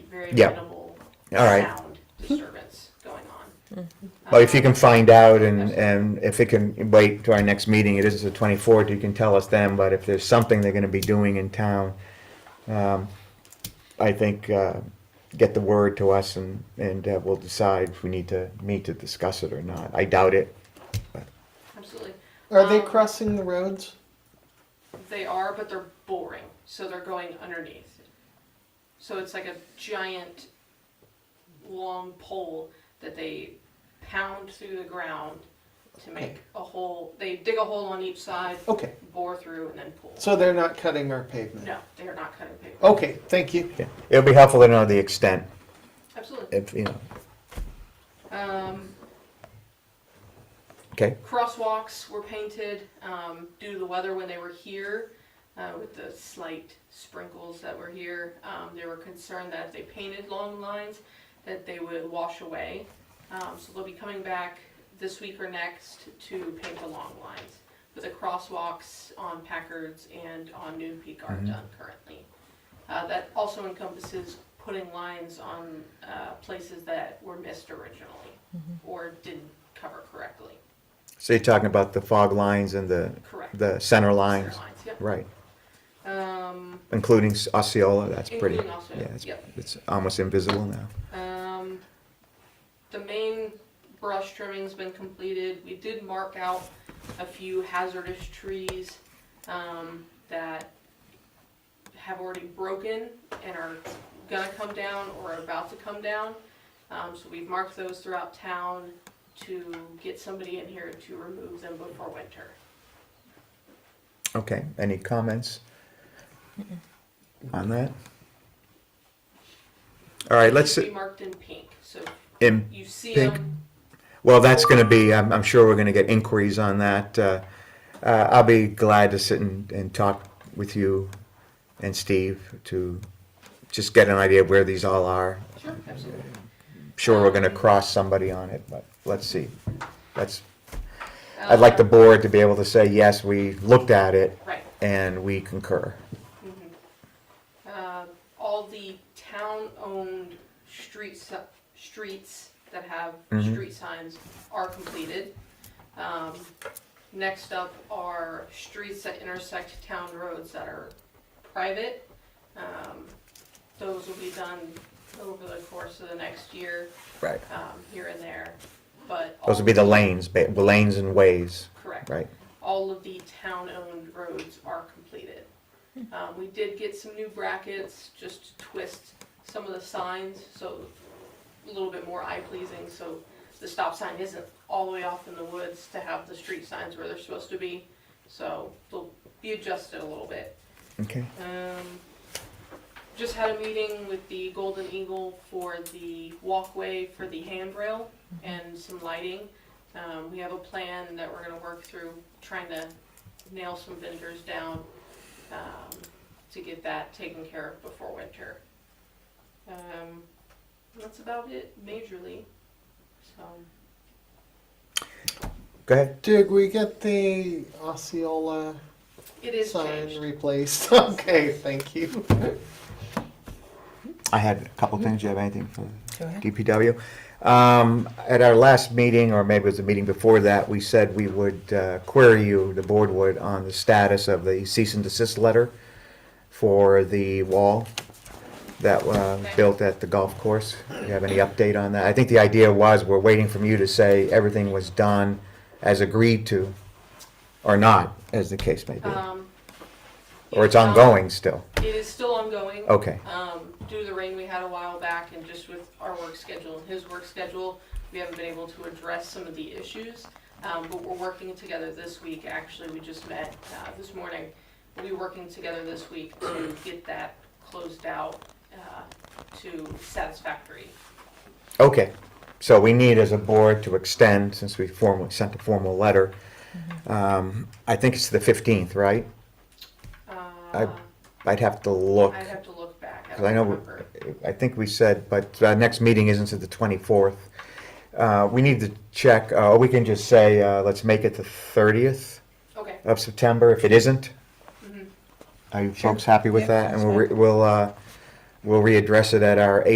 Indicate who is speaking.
Speaker 1: very
Speaker 2: Yeah.
Speaker 1: minimal
Speaker 2: All right.
Speaker 1: sound disturbance going on. Um,
Speaker 2: Well, if you can find out and, and if it can wait to our next meeting, it is the twenty-fourth, you can tell us then, but if there's something they're gonna be doing in town, um, I think, uh, get the word to us and, and uh, we'll decide if we need to meet to discuss it or not. I doubt it.
Speaker 1: Absolutely.
Speaker 3: Are they
Speaker 1: Um,
Speaker 3: crossing the roads?
Speaker 1: They are, but they're boring, so they're going underneath. So it's like a giant, long pole that they pound through the ground to make a hole. They dig a hole on each side,
Speaker 3: Okay,
Speaker 1: bore through, and then pull.
Speaker 3: so they're not cutting our pavement.
Speaker 1: No, they are not cutting paper.
Speaker 3: Okay, thank you.
Speaker 2: Yeah. It'll be helpful to know the extent,
Speaker 1: Absolutely.
Speaker 2: if, you know,
Speaker 1: Um,
Speaker 2: okay?
Speaker 1: crosswalks were painted um, due to the weather when they were here uh, with the slight sprinkles that were here um, they were concerned that if they painted long lines that they would wash away um, so they'll be coming back this week or next to paint the long lines but the crosswalks on packards and on noon peak aren't done currently uh, that also encompasses putting lines on uh, places that were missed originally or didn't cover correctly
Speaker 2: So you're talking about the fog lines and the,
Speaker 1: Correct.
Speaker 2: the center lines,
Speaker 1: Center lines, yep.
Speaker 2: right,
Speaker 1: Um,
Speaker 2: including Osceola, that's pretty,
Speaker 1: Including Osceola,
Speaker 2: yeah, it's,
Speaker 1: yep.
Speaker 2: it's almost invisible now.
Speaker 1: um, the main brush trimming's been completed. We did mark out a few hazardous trees, um, that have already broken and are gonna come down or are about to come down. Um, so we've marked those throughout town to get somebody in here to remove them before winter.
Speaker 2: Okay, any comments on that? All right, let's,
Speaker 1: They should be marked in pink, so
Speaker 2: in,
Speaker 1: you see
Speaker 2: Pink.
Speaker 1: them,
Speaker 2: well, that's gonna be, I'm, I'm sure we're gonna get inquiries on that. Uh, uh, I'll be glad to sit and, and talk with you and Steve to just get an idea of where these all are.
Speaker 1: sure, absolutely.
Speaker 2: Sure, we're gonna cross somebody on it, but let's see. That's, I'd like the board to be able to say, yes, we looked at it
Speaker 1: Right. Mm-hmm.
Speaker 2: and we concur.
Speaker 1: uh, all the town-owned streets, streets that have
Speaker 2: Mhm.
Speaker 1: street signs are completed. Um, next up are streets that intersect town roads that are private. Um, those will be done over the course of the next year,
Speaker 2: Right.
Speaker 1: um, here and there, but. all-
Speaker 2: Those would be the lanes, ba- lanes and ways,
Speaker 1: Correct
Speaker 2: right?
Speaker 1: all of the town-owned roads are completed. Um, we did get some new brackets, just to twist some of the signs, so a little bit more eye-pleasing, so the stop sign isn't all the way off in the woods to have the street signs where they're supposed to be, so they'll be adjusted a little bit.
Speaker 2: Okay.
Speaker 1: Um, just had a meeting with the Golden Eagle for the walkway for the handrail and some lighting. Um, we have a plan that we're gonna work through, trying to nail some vendors down, um, to get that taken care of before winter. Um, that's about it majorly, so.
Speaker 2: Go ahead.
Speaker 3: Did we get the Osceola
Speaker 1: It is
Speaker 3: sign
Speaker 1: changed.
Speaker 3: replaced? Okay, thank you.
Speaker 2: I had a couple things. You have anything for
Speaker 4: Go ahead.
Speaker 2: DPW? Um, at our last meeting, or maybe it was the meeting before that, we said we would uh, query you, the board would, on the status of the cease and desist letter for the wall that uh, was built at the golf course. Do you have any update on that? I think the idea was we're waiting from you to say everything was done as agreed to, or not, as the case may be,
Speaker 1: Um,
Speaker 2: or it's
Speaker 1: um,
Speaker 2: ongoing Oh, still.
Speaker 1: It is still ongoing.
Speaker 2: Okay.
Speaker 1: Um, due to the rain we had a while back and just with our work schedule and his work schedule, we haven't been able to address some of the issues. Um, but we're working together this week, actually, we just met, uh, this morning. We'll be working together this week to get that closed out, uh, to satisfactory.
Speaker 2: Okay, so we need as a board to extend, since we formally sent a formal letter.
Speaker 1: Mm-hmm.
Speaker 2: Um, I think it's the 15th, right?
Speaker 1: Uh,
Speaker 2: I'd have to look.
Speaker 1: I'd have to look back, I
Speaker 2: Because I
Speaker 1: don't
Speaker 2: know,
Speaker 1: remember.
Speaker 2: we- I think we said, but our next meeting isn't until the 24th. Uh, We need to check, uh, or we can just say, uh, let's make it the 30th
Speaker 1: Okay,
Speaker 2: of September if it isn't.
Speaker 1: Mhm.
Speaker 2: Are you folks happy with
Speaker 4: Yeah,
Speaker 2: that? And
Speaker 4: that's
Speaker 2: we'll, re- we'll, uh, we'll readdress it at our